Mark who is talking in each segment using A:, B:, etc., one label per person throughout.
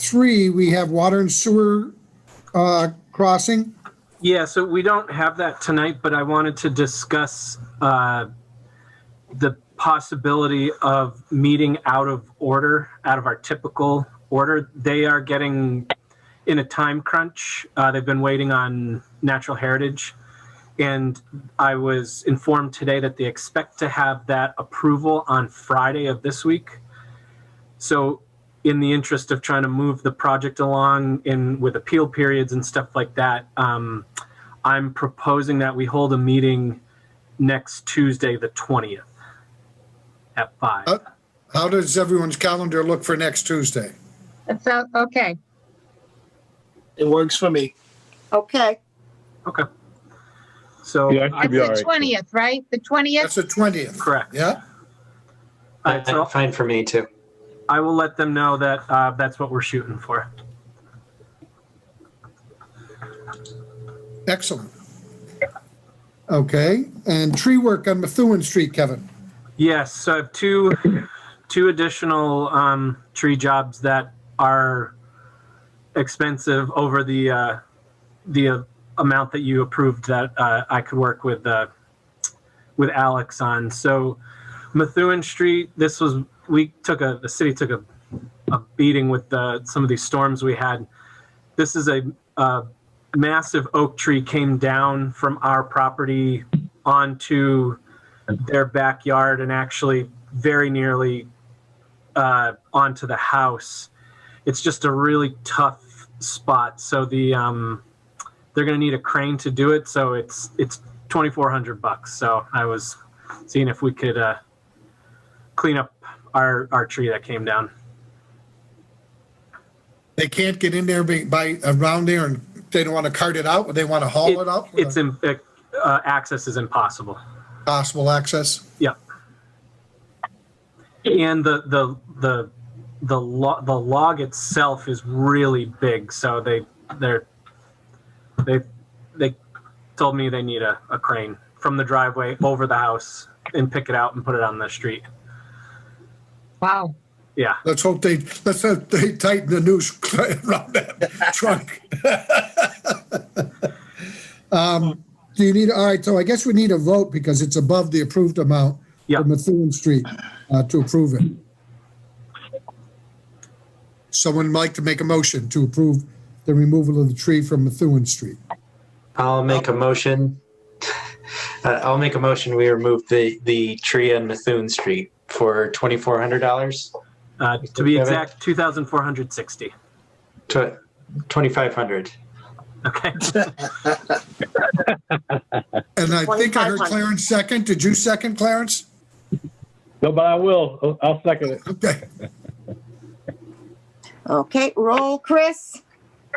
A: three, we have water and sewer uh, crossing.
B: Yeah, so we don't have that tonight, but I wanted to discuss uh, the possibility of meeting out of order, out of our typical order. They are getting in a time crunch. Uh, They've been waiting on natural heritage. And I was informed today that they expect to have that approval on Friday of this week. So in the interest of trying to move the project along in with appeal periods and stuff like that, um, I'm proposing that we hold a meeting next Tuesday, the 20th at five.
C: Oh.
A: Uh, How does everyone's calendar look for next Tuesday?
D: That sounds, okay,
E: It works for me.
F: Okay,
B: So
C: Yeah, I
B: I,
D: it's
C: should be all
D: the
C: right.
D: twentieth, right? The twentieth?
A: That's the 20th.
B: Correct.
A: Yeah?
B: I, so
G: Fine for me too.
B: I will let them know that uh, that's what we're shooting for.
A: Excellent. Okay, and tree work on Methuen Street, Kevin.
B: Yes, so I have two two additional um, tree jobs that are expensive over the uh, the uh, amount that you approved that uh, I could work with uh, with Alex on. So Methuen Street, this was we took a the city took a a beating with the, some of these storms we had. This is a uh, massive oak tree came down from our property onto their backyard and actually very nearly uh, onto the house. It's just a really tough spot. So the um, they're going to need a crane to do it. So it's it's twenty four hundred bucks. So I was seeing if we could uh, clean up our our tree that came down.
A: They can't get in there be- by, around there and they don't want to cart it out, but they want to haul it out?
B: It's in, uh, access is impossible.
A: Possible access?
B: and the the the the lo- the log itself is really big so they they're they they told me they need a, a crane from the driveway over the house and pick it out and put it on the street
D: Wow,
B: yeah
A: Let's hope they, let's hope they tighten the noose around that trunk. Um, Do you need, all right, so I guess we need a vote because it's above the approved amount
B: Yeah.
A: for Methuen Street uh, to approve it. Someone like to make a motion to approve the removal of the tree from Methuen Street.
G: I'll make a motion. Uh, I'll make a motion. We remove the, the tree on Methuen Street for twenty-four hundred dollars
B: uh, to be
G: Okay.
B: exact 2460
G: to twenty-five hundred.
B: okay
A: And I think I heard Clarence second. Did you second, Clarence?
C: No, but I will. I'll- I'll second it.
A: Okay,
F: okay, roll, Chris,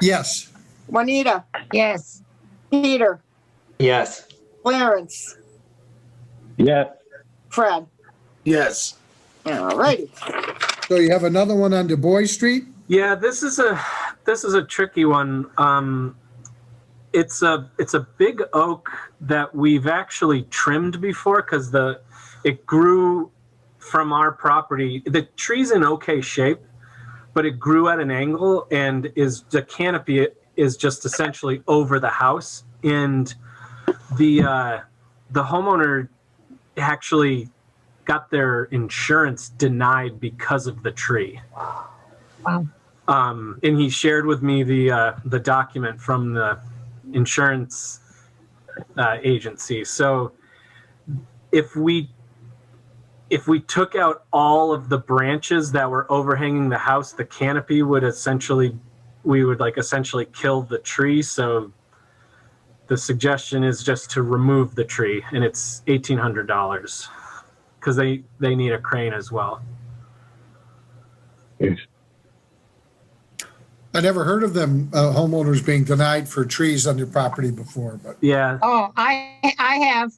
A: yes.
F: Juanita,
D: yes,
F: Peter,
G: Yes.
F: Clarence,
C: Yes.
F: Fred.
E: Yes.
F: All righty,
A: So you have another one on Du Bois Street?
B: Yeah, this is a this is a tricky one. Um, it's a it's a big oak that we've actually trimmed before because the it grew from our property. The tree's in okay shape, but it grew at an angle and is the canopy is just essentially over the house. And the uh, the homeowner actually got their insurance denied because of the tree um, and he shared with me the uh, the document from the insurance uh, agency. So if we if we took out all of the branches that were overhanging the house, the canopy would essentially we would like essentially kill the tree. So the suggestion is just to remove the tree, and it's eighteen hundred dollars because they they need a crane as well.
A: I never heard of them uh, homeowners being denied for trees on their property before, but
B: Yeah,
D: oh, I, I have,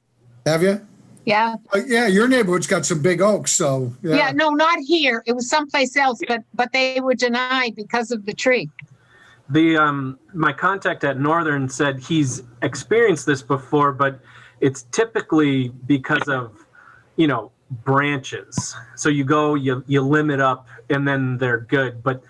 A: have you?
D: yeah,
A: Uh, yeah, your neighborhood's got some big oaks, so yeah.
D: yeah, no, not here, it was someplace else, but, but they were denied because of the tree.
B: the um my contact at northern said he's experienced this before but it's typically because of you know branches so you go you you limit up and then they're good but